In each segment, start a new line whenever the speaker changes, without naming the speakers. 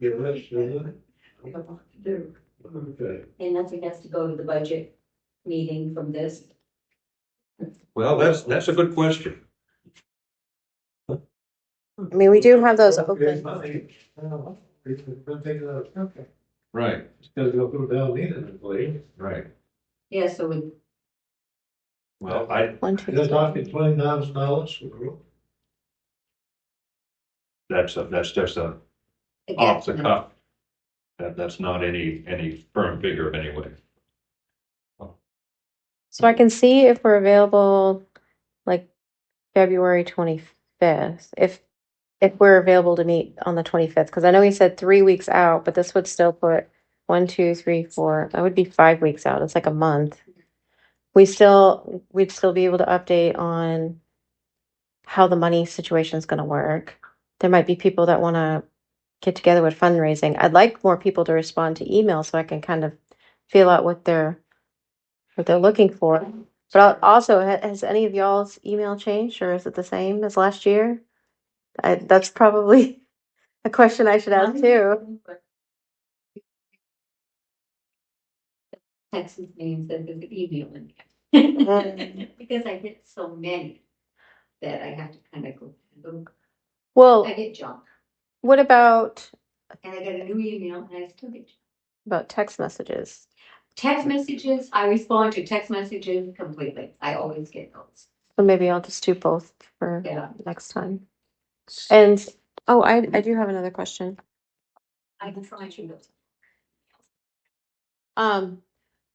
Give us, Susan.
I don't know what to do.
Okay.
And nothing has to go to the budget meeting from this.
Well, that's, that's a good question.
I mean, we do have those
Here's
open.
money. Now, It's gonna take it out.
Okay.
Right,
It's gonna go through down meeting, I believe.
right.
Yeah, so we,
Well, I,
One,
you're
two,
talking twenty thousand dollars for group.
That's, a- that's just a off the
again,
cuff. That, that's not any, any firm figure anyway.
so I can see if we're available like February twenty-fifth, if, if we're available to meet on the twenty-fifth, because I know he said three weeks out, but this would still put one, two, three, four, that would be five weeks out. It's like a month. We still, we'd still be able to update on how the money situation is going to work. There might be people that want to get together with fundraising. I'd like more people to respond to email so I can kind of feel out what they're what they're looking for. But I'll- also, ha- has any of y'all's email changed, or is it the same as last year? I, that's probably a question I should ask
Mine-
too.
Text means that there's an email in there.
Mm.
Because I get so many that I have to kind of go, look.
Well,
I get junk.
what about
And I get a new email and I still get junk.
about text messages?
Text messages, I respond to text messages completely. I always get those.
So maybe I'll just do both for
Yeah.
next time. And oh, I I do have another question.
I can try to. do
Um,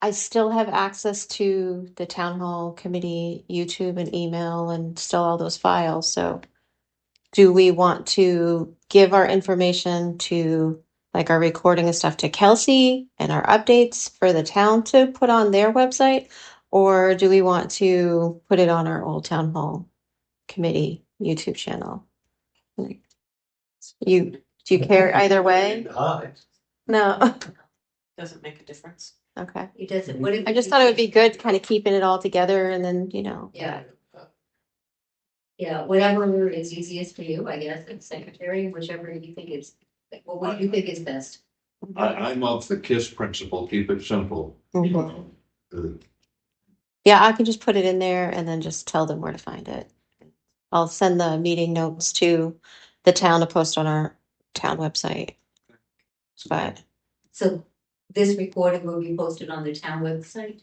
I still have access to the town hall committee, YouTube and email and still all those files, so. Do we want to give our information to, like our recording and stuff to Kelsey and our updates for the town to put on their website? Or do we want to put it on our old town hall committee YouTube channel? Like, You, do you care either way?
Hide.
No,
Doesn't make a difference.
okay.
It doesn't, what if?
I just thought it would be good kind of keeping it all together and then, you know.
Yeah. Yeah, whatever is easiest for you, I guess, and secretary, whichever you think is, well, what you think is best.
I, I'm of the KISS principle, keep it simple. Uh,
Yeah, I can just put it in there and then just tell them where to find it. I'll send the meeting notes to the town to post on our town website. But
So this recording will be posted on the town website.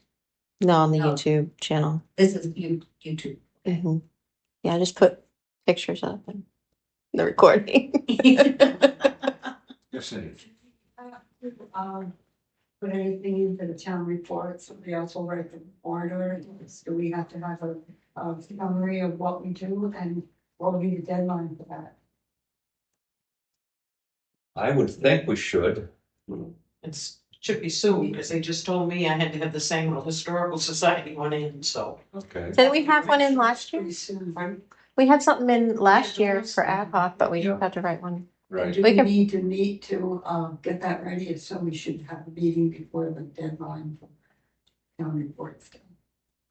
no, on the
No.
YouTube channel.
This is you, YouTube.
Mhm. Yeah, just put pictures up and the recording.
Yes, sir.
Um, put anything in for the town report, somebody else will write the warrant articles, do we have to have a, a summary of what we do and what will be the deadline for that?
I would think we should.
It's, should be soon, because they just told me I had to have the Sangerville Historical Society one in, so.
Okay.
Didn't we have one in last year?
Pretty soon, right?
We had something in last year for ad hoc, but we have to write one.
Right.
Do
We
we
can-
need to meet to, uh, get that ready, if so, we should have a meeting before the deadline for town reports.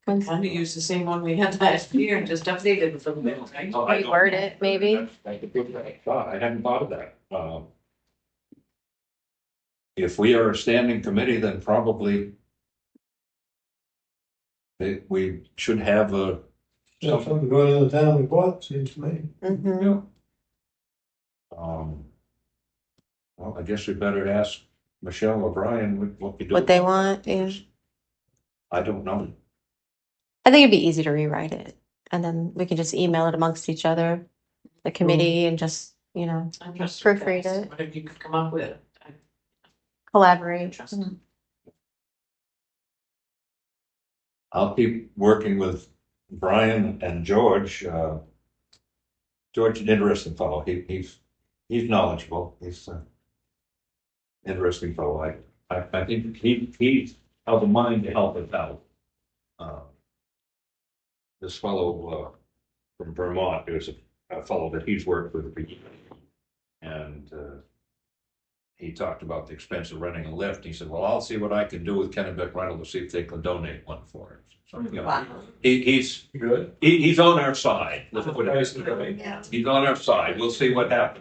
Kind of use the same one we had last year and just updated it a little bit, right?
Oh, I don't-
Reword it, maybe?
I could give that a thought. I hadn't thought of that. Um, If we are a standing committee, then probably it- we should have a,
Yeah, something going on in the town report, seems to me.
Mhm.
um, well, I guess we better ask Michelle or Brian what- what we do.
What they want, yeah.
I don't know.
I think it'd be easy to rewrite it and then we can just email it amongst each other, the committee, and just, you know,
I trust you guys.
Proofread it.
Whatever you could come up with. I
collaborate.
trust.
I'll keep working with Brian and George. uh, George, an interesting fellow. He, he's, he's knowledgeable. He's an interesting fellow. I, I, I think he, he's of the mind to help us out. Uh, This fellow, uh, from Vermont, there's a, a fellow that he's worked with for years. And, uh, he talked about the expense of renting a lift. He said, well, I'll see what I can do with Kennebec Rental to see if they can donate one for us. So, you know,
Wow.
he, he's,
Good.
he, he's on our side. Let's put it-
Nice to go.
Yeah.
He's on our side. We'll see what happens.